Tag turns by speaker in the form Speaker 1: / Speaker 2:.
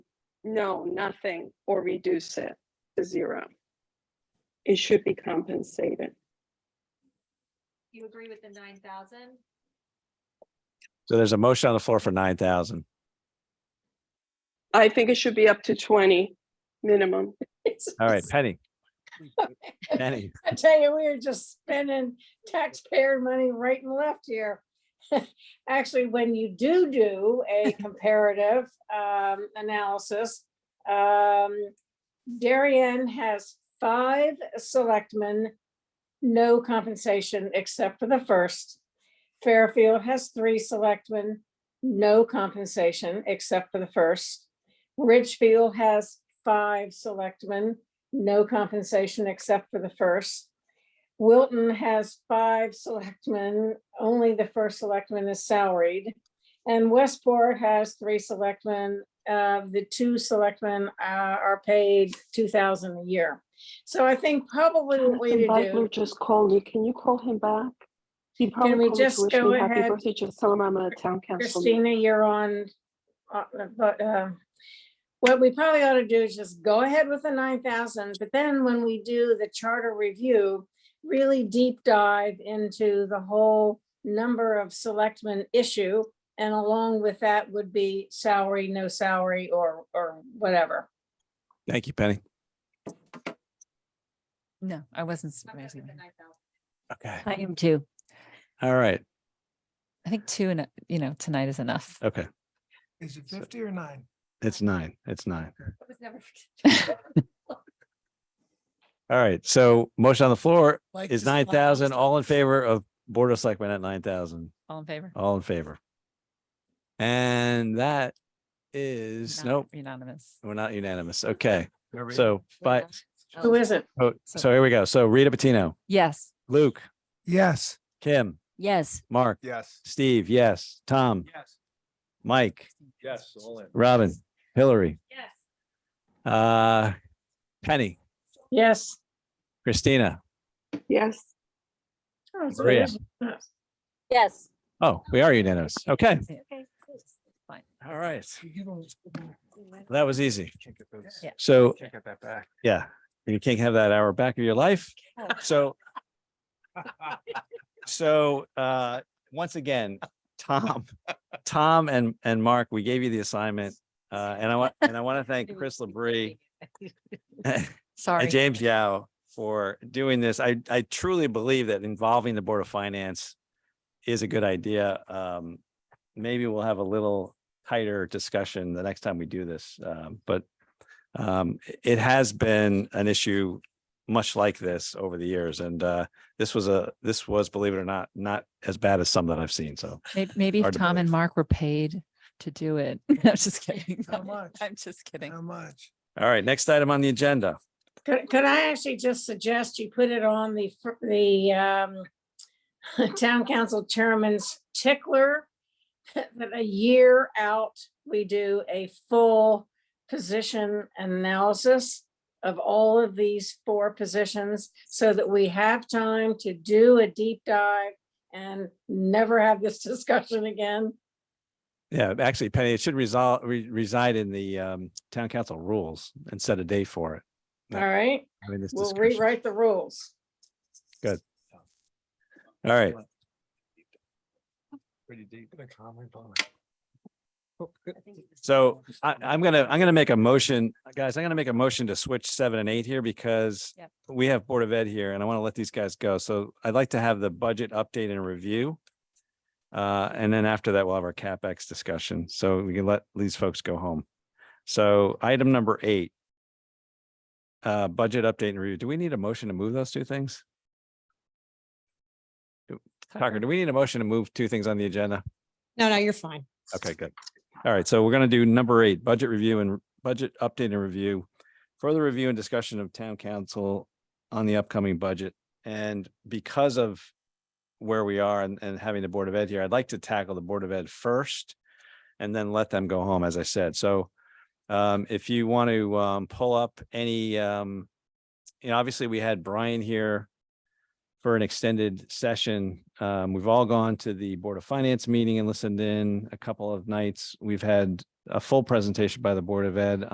Speaker 1: No, nothing, or reduce it to zero. It should be compensated.
Speaker 2: You agree with the nine thousand?
Speaker 3: So there's a motion on the floor for nine thousand.
Speaker 1: I think it should be up to twenty minimum.
Speaker 3: All right, Penny. Penny,
Speaker 4: I tell you, we are just spending taxpayer money right and left here. Actually, when you do do a comparative um, analysis, um, Darien has five selectmen, no compensation except for the first. Fairfield has three selectmen, no compensation except for the first. Ridgefield has five selectmen, no compensation except for the first. Wilton has five selectmen, only the first selectman is salaried. And Westport has three selectmen, uh, the two selectmen, uh, are paid two thousand a year. So I think probably the way to
Speaker 1: Jonathan Butler
Speaker 4: do,
Speaker 1: just called me. Can you call him back? He probably
Speaker 4: we
Speaker 1: called to
Speaker 4: just
Speaker 1: wish
Speaker 4: go
Speaker 1: me happy
Speaker 4: ahead?
Speaker 1: birthday. Just tell him I'm a town council. member.
Speaker 4: Christina, you're on, uh, but, uh, what we probably ought to do is just go ahead with the nine thousand, but then when we do the charter review, really deep dive into the whole number of selectmen issue. And along with that would be salary, no salary, or, or whatever.
Speaker 3: thank you, Penny.
Speaker 5: No, I wasn't. s-
Speaker 2: I'm good
Speaker 5: raising
Speaker 2: with the
Speaker 5: my hand.
Speaker 2: nine thousand.
Speaker 3: Okay,
Speaker 5: I am too.
Speaker 3: all right,
Speaker 5: I think two and, a- you know, tonight is enough.
Speaker 3: okay.
Speaker 6: Is it
Speaker 3: So-
Speaker 6: fifty or nine?
Speaker 3: It's nine, it's nine.
Speaker 2: It was never.
Speaker 3: All right, so motion on the floor
Speaker 6: Like
Speaker 3: is
Speaker 6: the
Speaker 3: nine
Speaker 6: slide.
Speaker 3: thousand. All in favor of Board of Selectmen at nine thousand?
Speaker 5: All in favor?
Speaker 3: All in favor? And that is,
Speaker 5: Not
Speaker 3: nope,
Speaker 5: Unanimous.
Speaker 3: we're not unanimous. Okay,
Speaker 6: Are we-
Speaker 3: so,
Speaker 5: We're
Speaker 3: but,
Speaker 5: not?
Speaker 4: Who
Speaker 5: Oh,
Speaker 4: is it?
Speaker 3: oh,
Speaker 5: So-
Speaker 3: so here we go. So Rita Patino,
Speaker 5: Yes.
Speaker 3: Luke,
Speaker 6: Yes.
Speaker 3: Kim,
Speaker 5: Yes.
Speaker 3: Mark,
Speaker 6: Yes.
Speaker 3: Steve, yes, Tom,
Speaker 6: Yes.
Speaker 3: Mike,
Speaker 6: Yes. all in.
Speaker 3: Robin, Hillary,
Speaker 2: Yes.
Speaker 3: uh, Penny,
Speaker 4: Yes.
Speaker 3: Christina,
Speaker 1: Yes.
Speaker 4: Oh, it's
Speaker 3: Maria.
Speaker 4: Elizabeth.
Speaker 5: Yes.
Speaker 3: Oh, we are unanimous. Okay.
Speaker 5: Okay. Fine.
Speaker 3: All right.
Speaker 6: You don't-
Speaker 3: That was easy.
Speaker 6: Can't get those-
Speaker 5: Yeah.
Speaker 3: So,
Speaker 6: can't get that back.
Speaker 3: yeah, you can't have that hour back of your life. So, so, uh, once again, Tom, Tom and, and Mark, we gave you the assignment. Uh, and I want, and I want to thank Chris Labrie
Speaker 5: Sorry.
Speaker 3: And James Yao for doing this. I, I truly believe that involving the Board of Finance is a good idea. Um, maybe we'll have a little tighter discussion the next time we do this, um, but um, i- it has been an issue much like this over the years, and uh, this was a, this was, believe it or not, not as bad as some that I've seen, so.
Speaker 5: May- Maybe if
Speaker 3: hard to
Speaker 5: Tom and
Speaker 3: believe.
Speaker 5: Mark were paid to do it. I'm just kidding.
Speaker 6: How much?
Speaker 5: I'm just kidding.
Speaker 6: How much?
Speaker 3: All right, next item on the agenda.
Speaker 4: Could, could I actually just suggest you put it on the, fir- the, um, town council chairman's tickler? That a year out, we do a full position analysis of all of these four positions so that we have time to do a deep dive and never have this discussion again.
Speaker 3: Yeah, actually, Penny, it should resolve, re- reside in the um, town council rules and set a day for it.
Speaker 4: All
Speaker 3: Yeah.
Speaker 4: right,
Speaker 3: having this
Speaker 4: we'll
Speaker 3: discussion.
Speaker 4: rewrite the rules.
Speaker 3: All right,
Speaker 6: Pretty deep. Oh, in a common bond.
Speaker 3: so I, I'm gonna, I'm gonna make a motion, guys, I'm gonna make a motion to switch seven and eight here because
Speaker 5: Yep.
Speaker 3: we have Board of Ed here and I want to let these guys go. So I'd like to have the budget update and review. Uh, and then after that, we'll have our CapEx discussion. So we can let these folks go home. So item number eight. Uh, budget update and review. Do we need a motion to move those two things? Tucker, do we need a motion to move two things on the agenda?
Speaker 7: No, no, you're fine.
Speaker 3: Okay, good. All right, so we're gonna do number eight, budget review and budget update and review. Further review and discussion of town council on the upcoming budget. And because of where we are and, and having the Board of Ed here, I'd like to tackle the Board of Ed first and then let them go home, as I said. So um, if you want to um, pull up any, um, you know, obviously we had Brian here for an extended session. Um, we've all gone to the Board of Finance meeting and listened in a couple of nights. We've had a full presentation by the Board of Ed